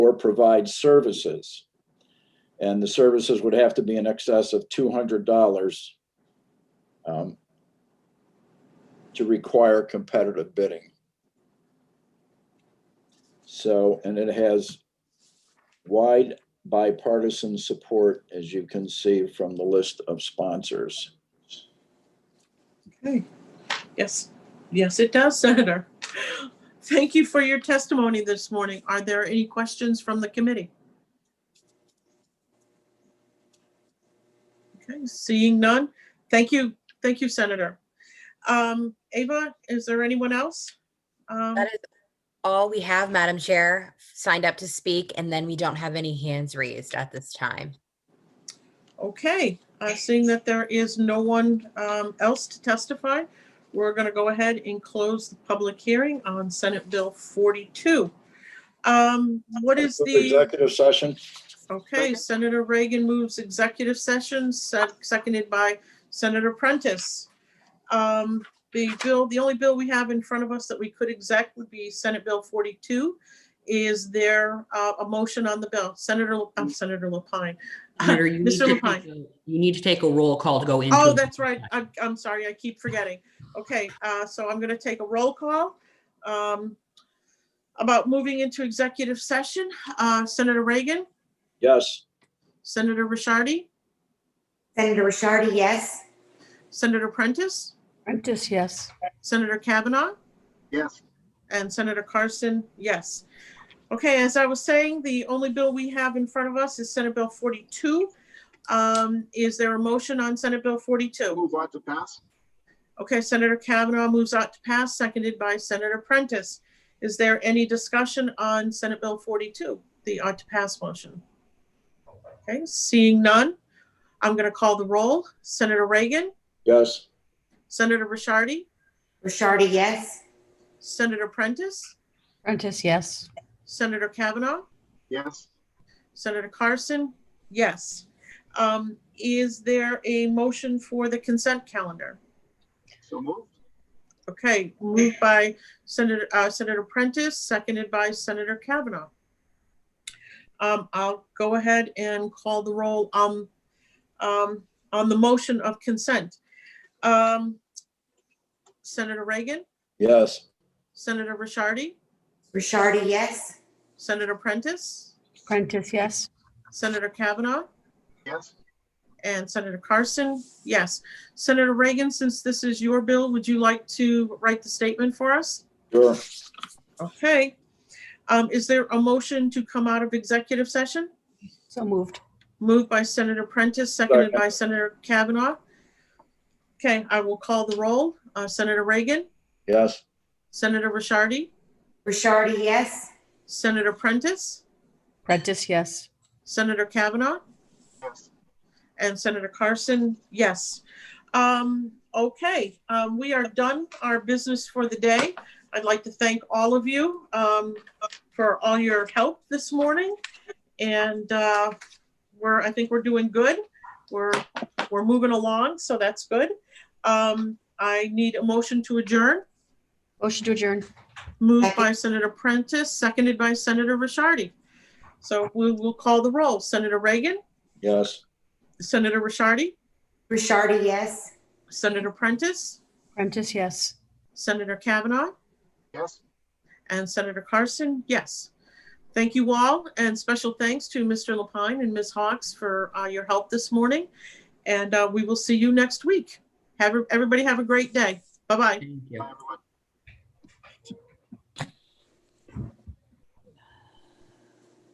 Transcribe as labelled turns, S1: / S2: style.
S1: or provide services. And the services would have to be in excess of two hundred dollars to require competitive bidding. So, and it has wide bipartisan support, as you can see from the list of sponsors.
S2: Okay. Yes, yes, it does, Senator. Thank you for your testimony this morning. Are there any questions from the committee? Okay, seeing none. Thank you, thank you, Senator. Um, Ava, is there anyone else? Um,
S3: That is all we have, Madam Chair, signed up to speak, and then we don't have any hands raised at this time.
S2: Okay, uh, seeing that there is no one um, else to testify, we're going to go ahead and close the public hearing on Senate Bill 42. Um, What is the,
S1: Executive session.
S2: okay, Senator Reagan moves executive session, sec- seconded by Senator Prentice. Um, The bill, the only bill we have in front of us that we could exec would be Senate Bill 42. Is there uh, a motion on the bill? Senator, uh, Senator Lapine.
S4: Senator, you need
S2: Mr.
S4: to
S2: Lapine.
S4: take a- you need to take a roll call to go into.
S2: Oh, that's right. I'm, I'm sorry. I keep forgetting. Okay, uh, so I'm gonna take a roll call. um, About moving into executive session, Uh, Senator Reagan,
S1: Yes.
S2: Senator Rishardi,
S5: Senator Rishardi, yes.
S2: Senator Prentice,
S6: Prentice, yes.
S2: Senator Kavanaugh,
S7: Yes,
S2: and Senator Carson, yes. Okay, as I was saying, the only bill we have in front of us is Senate Bill 42. Um, Is there a motion on Senate Bill 42?
S7: move on to pass.
S2: Okay, Senator Kavanaugh moves out to pass, seconded by Senator Prentice. Is there any discussion on Senate Bill 42, the ought to pass motion? Okay, seeing none, I'm going to call the roll. Senator Reagan,
S1: Yes.
S2: Senator Rishardi,
S5: Rishardi, yes.
S2: Senator Prentice,
S6: Prentice, yes.
S2: Senator Kavanaugh,
S7: Yes,
S2: Senator Carson, yes. Um, Is there a motion for the consent calendar?
S7: so moved.
S2: Okay, moved by Senator, uh, Senator Prentice, seconded by Senator Kavanaugh. Um, I'll go ahead and call the roll, um, um, on the motion of consent. Um, Senator Reagan,
S1: Yes.
S2: Senator Rishardi,
S5: Rishardi, yes.
S2: Senator Prentice,
S6: Prentice, yes.
S2: Senator Kavanaugh,
S7: Yes,
S2: and Senator Carson, yes. Senator Reagan, since this is your bill, would you like to write the statement for us?
S1: Sure.
S2: Okay. Um, is there a motion to come out of executive session?
S6: So moved.
S2: Moved by Senator Prentice, seconded by Senator Kavanaugh. Okay, I will call the roll. Uh, Senator Reagan,
S1: Yes.
S2: Senator Rishardi,
S5: Rishardi, yes.
S2: Senator Prentice,
S6: Prentice, yes.
S2: Senator Kavanaugh,
S7: yes.
S2: and Senator Carson, yes. Um, okay, um, we are done our business for the day. I'd like to thank all of you, um, for all your help this morning. And, uh, we're, I think we're doing good. We're, we're moving along, so that's good. Um, I need a motion to adjourn,
S6: Motion to adjourn.
S2: moved by Senator Prentice, seconded by Senator Rishardi. So we will call the roll. Senator Reagan,
S1: Yes.
S2: Senator Rishardi,
S5: Rishardi, yes.
S2: Senator Prentice,
S6: Prentice, yes.
S2: Senator Kavanaugh
S7: Yes.
S2: and Senator Carson, yes. Thank you all, and special thanks to Mr. Lapine and Ms. Hawks for uh, your help this morning. And uh, we will see you next week. Have, everybody have a great day. Bye-bye.
S4: Thank you.
S7: Bye, everyone.